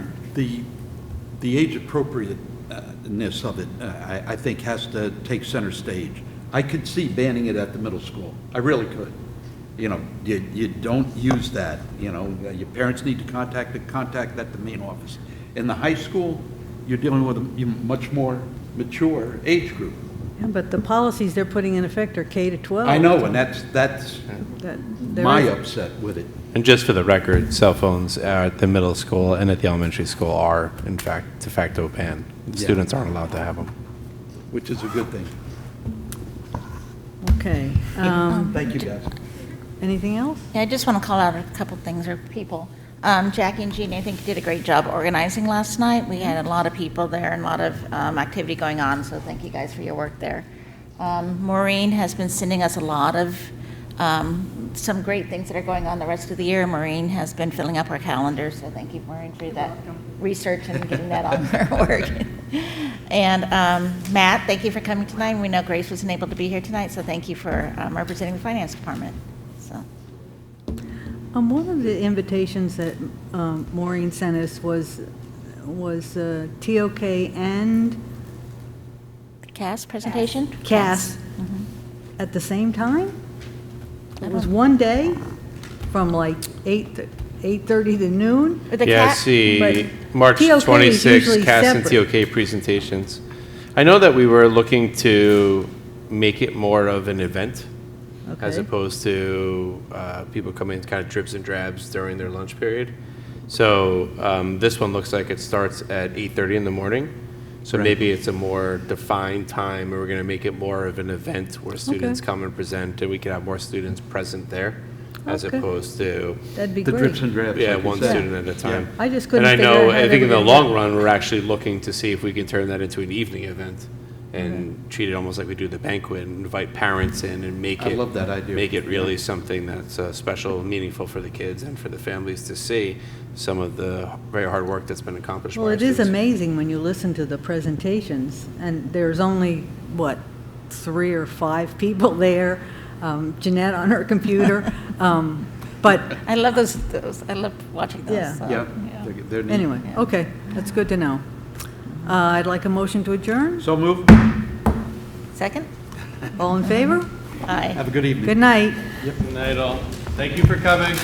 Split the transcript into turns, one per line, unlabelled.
The, the age appropriateness of it, uh, I, I think, has to take center stage. I could see banning it at the middle school. I really could. You know, you, you don't use that, you know, uh, your parents need to contact, the contact at the main office. In the high school, you're dealing with a much more mature age group.
Yeah, But the policies they're putting in effect are K to 12.
I know, and that's, that's
That- there
my
is-
upset with it.
And just for the record, cell phones at the middle school and at the elementary school are, in fact, de facto banned.
Yeah.
Students aren't allowed to have them.
Which is a good thing.
Okay. Um,
Thank you, guys.
Anything else?
Yeah, I just want to call out a couple things or people. Um, Jackie and Jeannie, I think, did a great job organizing last night. We had a lot of people there and a lot of um, activity going on, so thank you guys for your work there. Um, Maureen has been sending us a lot of, um, some great things that are going on the rest of the year. Maureen has been filling up our calendar, so thank you, Maureen, for that research and getting that on her work. And um, Matt, thank you for coming tonight. We know Grace wasn't able to be here tonight, so thank you for um, representing the Finance Department, so.
Um, One of the invitations that um, Maureen sent us was, was uh, TOK and
CAS presentation?
CAS at the same time?
Mm-hmm. I
It was
don't-
one day, from like 8, to- 8:30 to noon?
Or the
yeah, I
cat-
see.
but
March
TOK is
26,
usually
CAS and
separate.
TOK presentations. I know that we were looking to make it more of an event as
Okay.
opposed to uh, people coming in kind of drips and drabs during their lunch period. So um, this one looks like it starts at 8:30 in the morning. So maybe it's a more defined time, or we're going to make it more of an event where students come and present, and we can have more students present there as
Okay.
opposed to
That'd be
The
great.
drips and drabs.
yeah,
like you
one
said.
student at a time.
I just couldn't
And I
figure out
know,
how
I
they
think in
were
the
gonna
long run, we're actually looking to see if we can turn that into an evening event and treat it almost like we do the banquet and invite parents in and make
I
it.
love that idea.
Make it really something that's uh, special, and meaningful for the kids and for the families to see some of the very hard work that's been accomplished by
Well,
our
it is
students.
amazing when you listen to the presentations, and there's only, what, three or five people there, um, Jeanette on her computer, um, but,
I love those, those, I love watching
Yeah.
those. so,
Yeah. they're- they're neat.
anyway, okay, that's good to know. Uh, I'd like a motion to adjourn.
So move.
Second?
All in favor?
Aye.
Have a good evening.
Good night.
Good night all. Thank you for coming.